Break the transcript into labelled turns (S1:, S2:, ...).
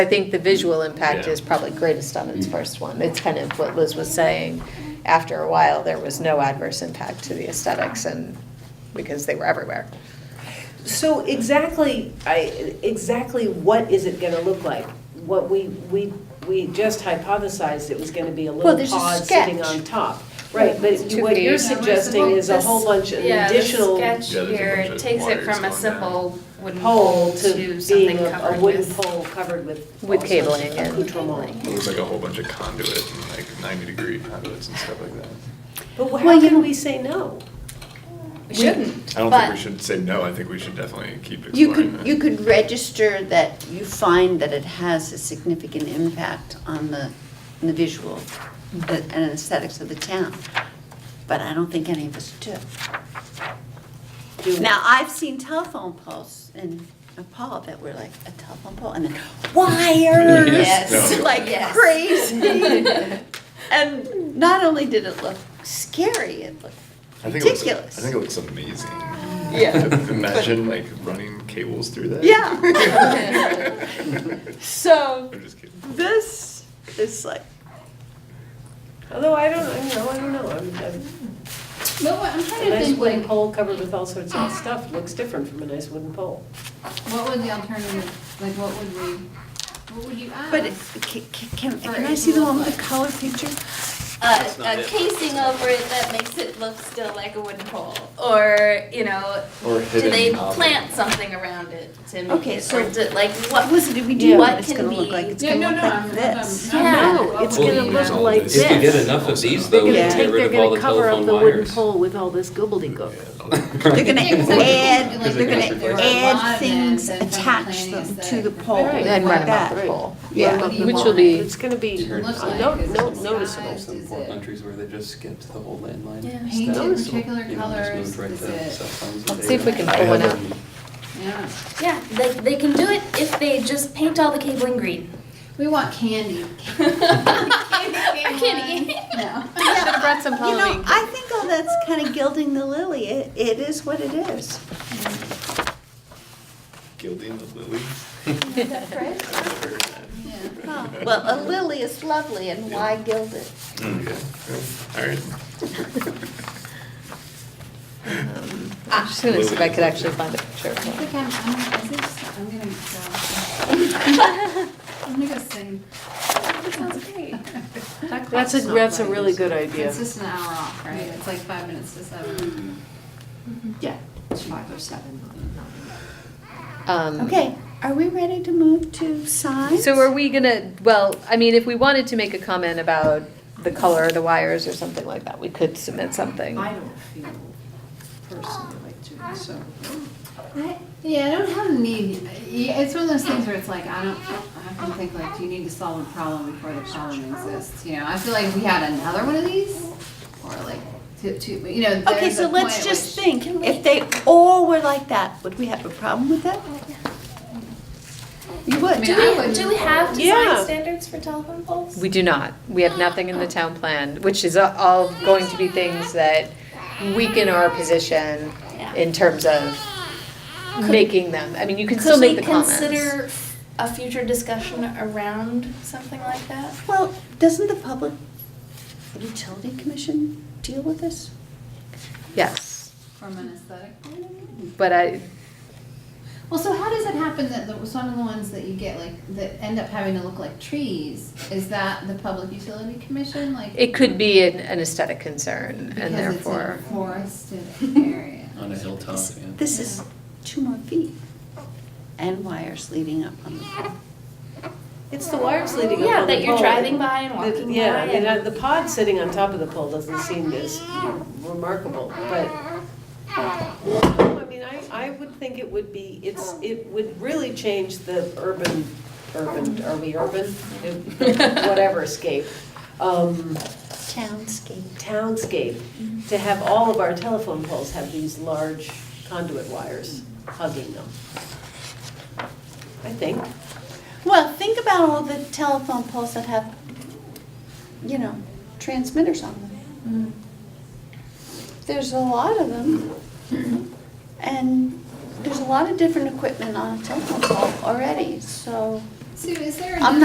S1: I think the visual impact
S2: Yeah. Mm.
S1: is probably greatest on its first one. It's kind of what Liz was saying. After a while, there was no adverse impact to the aesthetics and, because they were everywhere.
S3: So exactly, I, exactly what is it gonna look like? What we, we, we just hypothesized it was gonna be a
S1: Well,
S3: little
S1: there's a
S3: pod sitting
S1: sketch.
S3: on top. Right, but
S1: It's two
S3: what
S1: feet.
S3: you're
S1: Yeah,
S3: suggesting is a whole bunch of additional
S4: Yeah, the sketch
S2: Yeah, there's a
S4: here,
S2: bunch
S4: it
S2: of
S4: takes it
S2: wires
S4: from a
S2: going
S4: simple wooden
S3: pole to
S4: to something
S3: being a- a
S4: covered
S3: wooden
S4: with.
S3: pole covered
S1: With
S3: with. all sorts of
S1: cabling and-
S3: accoutrement.
S2: It looks like a whole bunch of conduit and like ninety degree conduits and stuff like that.
S3: But wh-
S1: Well,
S3: how
S1: you
S3: can
S1: know-
S3: we say no?
S4: We shouldn't.
S2: I don't think
S5: But-
S2: we should say no, I think we should definitely keep
S5: You
S2: exploring
S5: could,
S2: that.
S5: you could register that you find that it has a significant impact on the, on the visual and aesthetics of the town, but I don't think any of us do.
S3: Do-
S5: Now, I've seen telephone poles in Nepal that were like a telephone pole and then wires.
S2: Yes. Yes. No.
S5: Like
S4: Yes.
S5: crazy. And not only did it look scary, it looked
S2: I think it looks-
S5: ridiculous.
S2: I think it looks amazing.
S5: Yeah.
S2: Imagine like running cables through that.
S5: Yeah. So,
S2: I'm just kidding.
S5: this is like,
S3: Although I don't, I know, I don't know, I'm, I'm,
S6: But what, I'm
S3: a
S6: trying to
S3: nice
S6: think,
S3: wooden
S6: like,
S3: pole covered with all sorts of stuff looks different from a nice wooden pole.
S6: what would the alternative, like, what would we, what would you add?
S5: but it- ca- ca- can, can I see the one with the color picture?
S4: a, Uh, a casing over it that makes it look still like a wooden pole, or you know,
S2: Or
S4: do they
S2: hidden object.
S4: plant something around it to make
S5: Okay,
S4: it,
S5: so
S4: or do, like what
S5: What was it, do we
S3: Yeah.
S5: do what
S4: What
S5: it's
S4: can
S5: gonna look like?
S4: be-
S5: It's
S6: Yeah,
S5: gonna
S6: no,
S5: look
S6: no, I'm,
S5: like
S6: I'm,
S5: this.
S6: I'm
S4: Yeah.
S6: not-
S7: No, it's
S6: what would
S7: gonna
S6: we
S7: look
S6: add?
S7: like
S8: If you get
S2: this.
S8: enough of these
S2: They're
S8: though,
S5: gonna
S8: you can
S5: take-
S8: get
S5: they're
S8: rid of all the telephone wires.
S3: with all this gobbledygook.
S5: They're gonna
S6: Yeah, 'cause
S2: like,
S6: I think,
S5: add, they're
S2: if there
S5: gonna
S2: were
S6: a lot
S5: add
S6: of
S5: things,
S6: them, then from
S5: attach
S6: planning
S5: them
S6: is
S5: to
S6: that-
S5: the pole,
S3: Right.
S1: Then
S5: like
S1: run them
S5: that.
S1: up the pole.
S5: Yeah.
S6: What do you
S1: Which
S6: want
S1: will be-
S6: it
S3: It's gonna be,
S6: to look
S3: uh,
S6: like?
S3: no,
S6: Is it
S3: no,
S6: sized?
S3: noticeable.
S6: Is
S8: Some poor
S6: it-
S8: countries where they just skipped the whole landline.
S4: Yeah.
S6: Painted
S8: stuff, so,
S6: particular
S8: you know, just
S6: colours,
S8: moved right
S6: is
S8: to
S6: it-
S8: cell phones and
S1: Let's see if we
S8: data.
S1: can pull one out.
S6: Yeah.
S4: yeah they, they can do it if they just paint all the cabling green
S6: We want candy.
S4: Or candy.
S6: No.
S1: Should have brought some
S5: You know,
S1: Halloween.
S5: I think all that's kind of gilding the lily. It, it is what it is.
S2: Gilding the lily.
S5: Well, a lily is lovely and why gild it?
S2: Yeah, alright.
S1: I'm just gonna see if I could actually find a picture.
S6: I think I'm, I'm, I think so- I'm gonna go. I'm gonna go sing.
S4: that sounds great
S3: That's a, that's a really good idea.
S6: It's just an hour off, right? It's like five minutes to seven.
S3: Yeah.
S1: Um,
S5: Okay, are we ready to move to signs?
S1: So are we gonna, well, I mean, if we wanted to make a comment about the color of the wires or something like that, we could submit something.
S3: I don't feel personally like doing so.
S6: I- Yeah, I don't have a need, yeah, it's one of those things where it's like, I don't, I often think like, do you need to solve a problem before the problem exists? You know, I feel like if we had another one of these, or like, to, to, you know,
S5: Okay,
S6: there's
S5: so
S6: a
S5: let's
S6: point
S5: just
S6: which-
S5: think, if they all were like that, would we have a problem with that? You
S6: I
S5: would.
S6: mean, I would.
S4: do we have design
S3: Yeah.
S4: standards for telephone poles
S1: We do not. We have nothing in the town plan, which is all going to be things that weaken our position in terms of making them. I mean, you can still
S4: could we
S1: make the comments.
S4: consider a future discussion around something like that
S5: Well, doesn't the Public Utility Commission deal with this?
S1: Yes,
S6: From an aesthetic point of view?
S1: but I,
S6: Well, so how does it happen that the, some of the ones that you get like, that end up having to look like trees, is that the Public Utility Commission, like?
S1: it could be an an aesthetic concern and
S6: because it's in a
S1: therefore.
S6: Forested area.
S8: On a hilltop,
S5: This-
S8: Oh, yeah.
S5: This is two more feet and wires leading up on the pole.
S3: It's the wires leading up
S4: yeah
S3: on the
S4: that you're
S3: pole.
S4: driving by and walking
S3: The- Yeah,
S4: by
S3: I mean, uh, the pod sitting on top of the pole doesn't seem as remarkable, but. No, I mean, I, I would think it would be, it's, it would really change the urban, urban, are we urban? Whatever scape, um,
S5: Townscape.
S3: townscape, to have all of our telephone poles have these large conduit wires hugging them. I think.
S5: Well, think about all the telephone poles that have, you know, transmitters on them. There's a lot of them. And there's a lot of different equipment on a telephone pole already, so
S6: Sue, is there?
S5: I'm
S6: another-